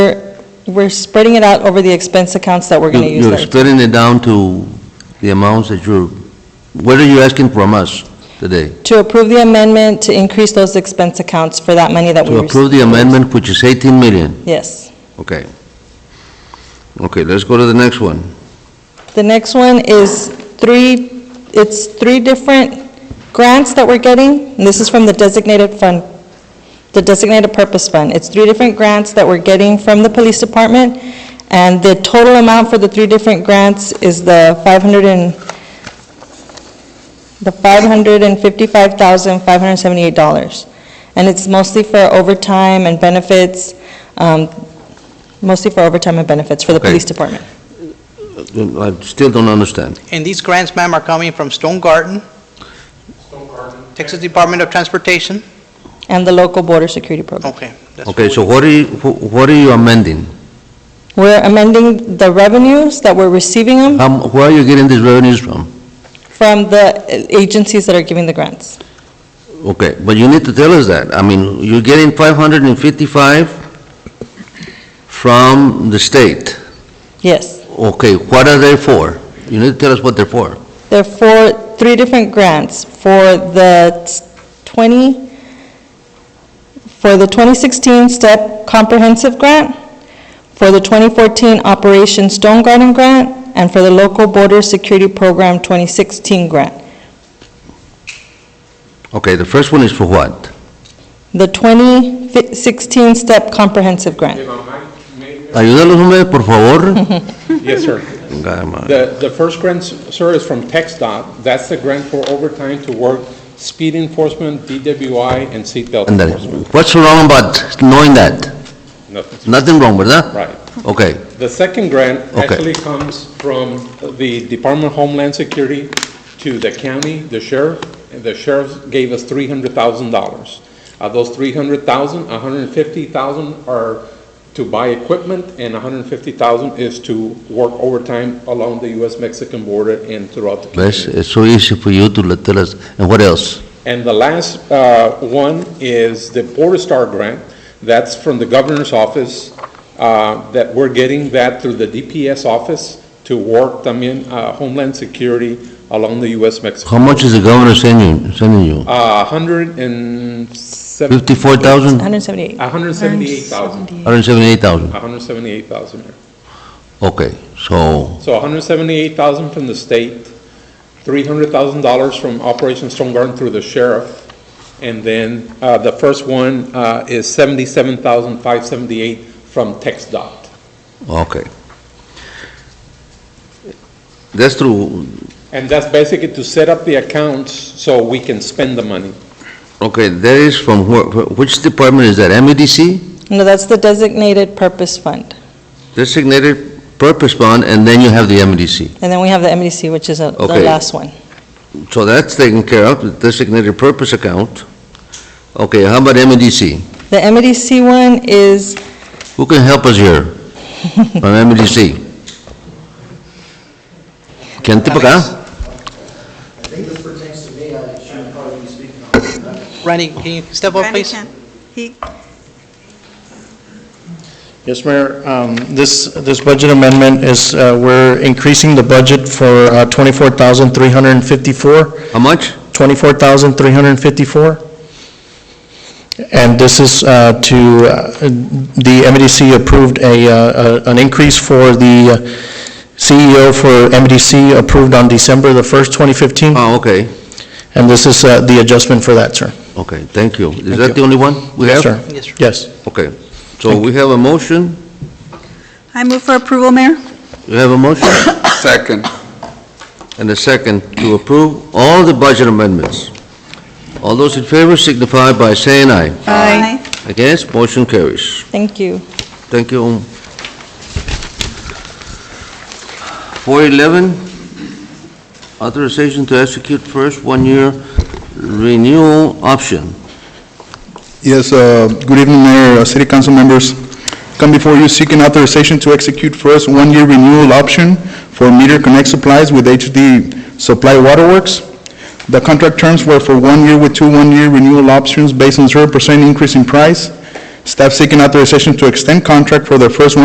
We're spreading it out over the expense accounts that we're going to You- use. You're that- splitting it down to the amounts that you're, what are you asking from us today? To approve the amendment to increase those expense accounts for that money that we To received. approve the amendment, which is 18 million? Yes. Okay. Okay, let's go to the next one. The next one is three, it's three different grants that we're getting, and this is from the designated fund, the designated purpose fund. It's three different grants that we're getting from the police department, and the total amount for the three different grants is the 500 and, the $555,578. And it's mostly for overtime and benefits, um, mostly for overtime and benefits for the Okay. police department. I still don't understand. And these grants, ma'am, are coming from Stone Garden, Texas Department of Transportation? And the local border security program. Okay. that's Okay, what so we- what are you, wh- what are you amending? We're amending the revenues that we're receiving them How m- Where are you getting these revenues from? from the agencies that are giving the grants. Okay, but you need to tell us that. I mean, you're getting 555 from the state. Yes. Okay, what are they for? You need to tell us what they're for. There are four, three different grants for the 20, for the 2016 STEP Comprehensive Grant, for the 2014 Operation Stone Garden Grant, and for the Local Border Security Program 2016 Grant. Okay, the first one is for what? The 2016 STEP Comprehensive Grant. Ayúdalos, hombre, por favor. Yes, sir. Chingada madre. The, the first grant, sir, is from TechStop. That's the grant for overtime to work speed enforcement, DWI, and seatbelt Ándale. enforcement. What's wrong about knowing that? Nothing. Nothing wrong, ¿verdad? Right. Okay, The second grant Okay. actually comes from the Department of Homeland Security to the county, the sheriff, and the sheriff gave us three hundred thousand dollars. Of those three hundred thousand, a hundred and fifty thousand are to buy equipment, and a hundred and fifty thousand is to work overtime along the US-Mexican border and throughout the country. that's, it's so easy for you to let- tell us. And what else? And the last uh, one is the Border Star Grant. That's from the governor's office, uh, that we're getting that through the DPS office to work, I mean, Homeland Security along the U.S.-Mexico. How much is the governor sending you, sending you? Uh, 107 Fifty-four thousand, 178. 178,000, hundred and seventy-eight thousand? 178,000. Mayor. Okay, so, So 178,000 from the state, $300,000 from Operation Stone Garden through the sheriff, and then uh, the first one uh, is 77,578 from Tex Dot. okay. That's true. And that's basically to set up the accounts so we can spend the money. Okay, that is from wh- which department is that? E MEDC? No, that's the designated purpose fund. Designated Purpose Fund, and then you have the E MEDC. And then we have the MDC, which is uh, the Okay. last one. So that's taken care of, the designated purpose account. Okay, how about MEDC? The MDC one is, Who can help us here from MEDC? Can tip Alex. acá? I think this pertains to me, I shouldn't probably be speaking on that. Randy, can you step up, Randy please? can. He, Yes, Mayor, um, this, this budget amendment is, uh, we're increasing the budget for uh, 24,354, How much? 24,354. And this is uh, to, uh, the MDC approved a, uh, a- an increase for the uh, CEO for MDC approved on December the 1st, 2015, Oh, okay, and this is uh, the adjustment for that, sir. okay, thank you. Is Thank that you. the only one we have? Yes, sir. Yes, sir. Yes. Okay, so we have a motion, I move for approval, Mayor. we have a motion Second. and a second to approve all the budget amendments. All those in favor signify by saying aye. Aye. Against, motion carries. thank you. Thank you. Four eleven, authorization to execute first one-year renewal option. Yes, uh, good evening, Mayor, uh, City Council members. Come before you seeking authorization to execute first one-year renewal option for meter connect supplies with HD Supply Waterworks. The contract terms were for one year with two one-year renewal options based on zero percent increase in price. Staff seeking authorization to extend contract for the first one.